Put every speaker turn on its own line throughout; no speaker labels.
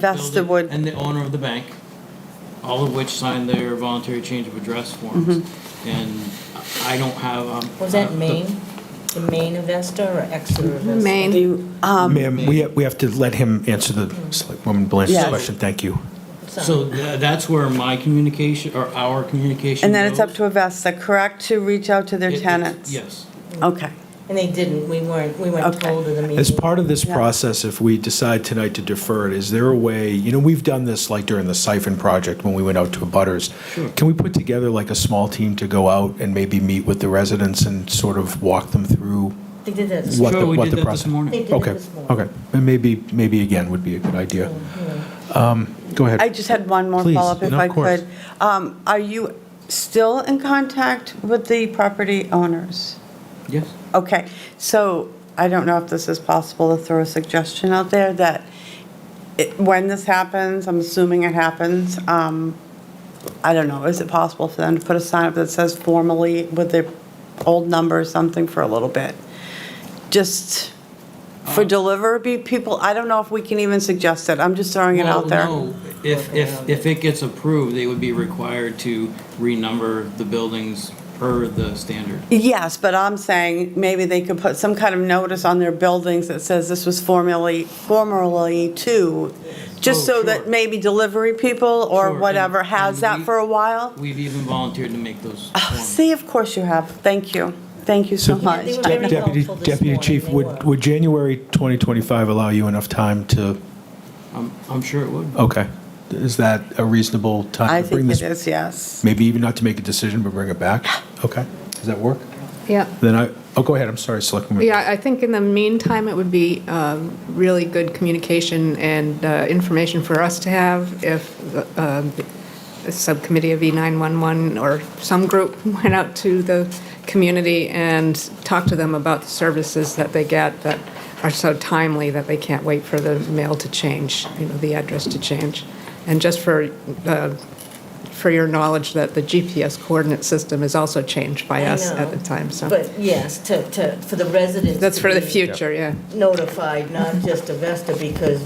That's the
building
wood.
And the owner of the bank, all of which signed their voluntary change of address forms.
Mm-hmm.
And I don't have, um.
Was that
uh, the-
Maine? The Maine investor or Exeter investor?
Do you- um,
Ma'am, we, we have to let him answer the Selectwoman Blanchard's
Yes.
question, thank you.
So tha- that's where my communication, or our communication.
And then it's up
goes.
to Avesta, correct, to reach out to
It-
their
it's-
tenants?
Yes.
Okay.
And they didn't, we weren't, we weren't
Okay.
told in the meeting.
As part of this
Yeah.
process, if we decide tonight to defer it, is there a way, you know, we've done this like during the siphon project when we went out to Butters. Can we put together like a small team to go out and maybe meet with the residents and sort of walk them through?
They did that. this
What
Sure,
the-
we
what
did that
the
this
process-
They
morning.
did it
Okay,
this morning.
okay, and maybe, maybe again would be a good idea. Um, Go ahead.
I just had one more
Please,
follow-up if
no,
I
of course.
could. Um, Are you still in contact with the property owners?
Yes.
Okay, so I don't know if this is possible to throw a suggestion out there that it- when this happens, I'm assuming it happens, um, I don't know, is it possible for them to put a sign up that says formally with their old number or something for a little bit? Just for
Um.
delivery people, I don't know if we can even suggest it, I'm just throwing it
Well,
out there.
no, If, if, if it gets approved, they would be required to renumber the buildings per the standard.
Yes, but I'm saying maybe they could put some kind of notice on their buildings that says this was formerly, formerly to, just
Oh,
so that
sure.
maybe delivery people
Sure,
or
and-
whatever has
and
that
we-
for a while.
We've even volunteered to make those
Ah,
forms.
See, of course you have. Thank you. Thank you so
So-
much.
Yeah, they were very
Deputy,
helpful this
Deputy
morning,
Chief,
they
would,
were.
would January 2025 allow you enough time to,
I'm, I'm sure it would.
okay, is that a reasonable
I
time to bring
think
this
it is, yes.
Maybe even not to make a decision, but bring it back? Okay, does that work?
Yeah,
Then I, oh, go ahead, I'm sorry, Selectwoman.
yeah, I think in the meantime, it would be um, really good communication and uh, information for us to have if uh, um, a subcommittee of E E911 or some group went out to the community and talked to them about the services that they get that are so timely that they can't wait for the mail to change, you know, the address to change. And just for, uh, for your knowledge, that the GPS coordinate system is also changed by
I
us at the
know,
time, so.
But yes, to, to, for the residents.
That's
to
for the
be
future, yeah.
Notified, not just Avesta, because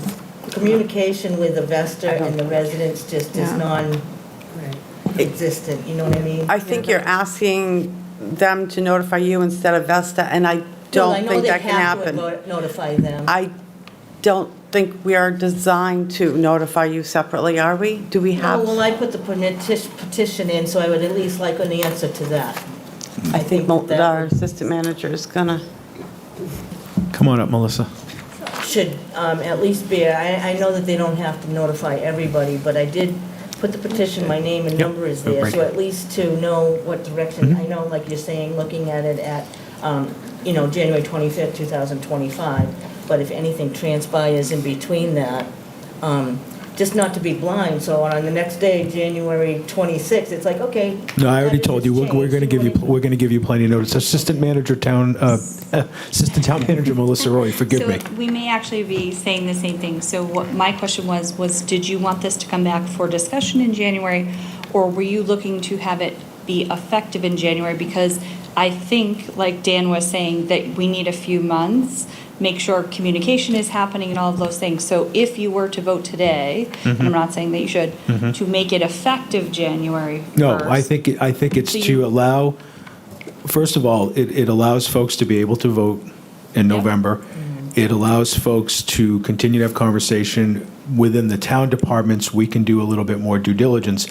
communication with Avesta and the residents just is
Yeah.
non-existent, you know what I mean?
I think you're asking them to notify you instead of Vesta, and I
Well, I
don't
know
think
they
that can
have to
happen.
not- Notify them.
I don't think we are designed to notify you separately, are we? Do we
No,
have?
well, I put the peti- petition in, so I would at least like an answer to that.
I think mo-
that
our assistant manager is gonna.
Come on up, Melissa.
should um, at least be, I, I know that they don't have to notify everybody, but I did put the petition, my name and
Yep, Mm-hmm.
number is
I'll
there,
break
so
it.
at least to know what direction, I know, like you're saying, looking at it at, um, you know, January 25th, 2025, but if anything transpires in between that, um, just not to be blind, so on the next day, January 26th, it's like, okay.
No, I
that
already
is-
told
it's
you, we're, we're
changed.
gonna give you, we're gonna give you plenty of notice. Assistant Manager Town, uh, Assistant Town Manager Melissa Roy, forgive me.
So we may actually be saying the same thing. So what my question was, was did you want this to come back for discussion in January? Or were you looking to have it be effective in January? Because I think, like Dan was saying, that we need a few months, make sure communication is happening and all of those things. So if you were to vote today, and
Mm-hmm.
I'm not saying that you should, to make it effective January
No, I
1st,
think, it- I think it's
Uh, So
to
you-
allow, first of all, it, it allows folks to be able to vote in
Yep.
November.
Mm-hmm.
It allows folks to continue to have conversation within the town departments. We can do a little bit more due diligence.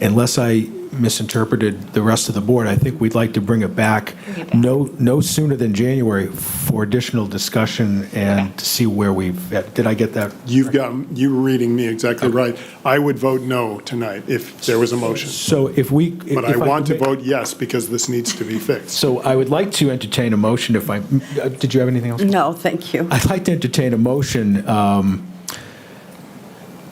Unless I misinterpreted the rest of the board, I think we'd like to bring it back
Bring it back.
no, no sooner than January for additional discussion and to see where we've, did I get that?
You've got, you were reading me exactly right. I would vote no tonight if there was a motion.
So if we.
But I
if
want to
could ma-
vote yes because this needs to be fixed.
So I would like to entertain a motion if I, uh, did you have anything else?
No, thank you.
I'd like to entertain a motion um,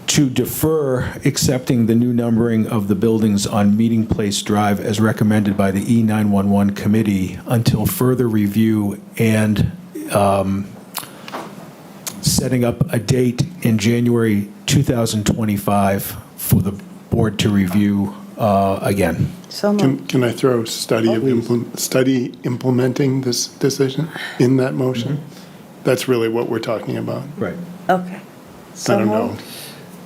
to defer accepting the new numbering of the buildings on Meeting Place Drive as recommended by the E E911 Committee until further review and um, setting up a date in January 2025 for the board to review uh, again.
So moved.
Can, can I throw
Oh,
study of, implement- study implementing this decision
Mm-hmm.
in that motion? That's really what we're talking about.
Right.
Okay.
I don't know.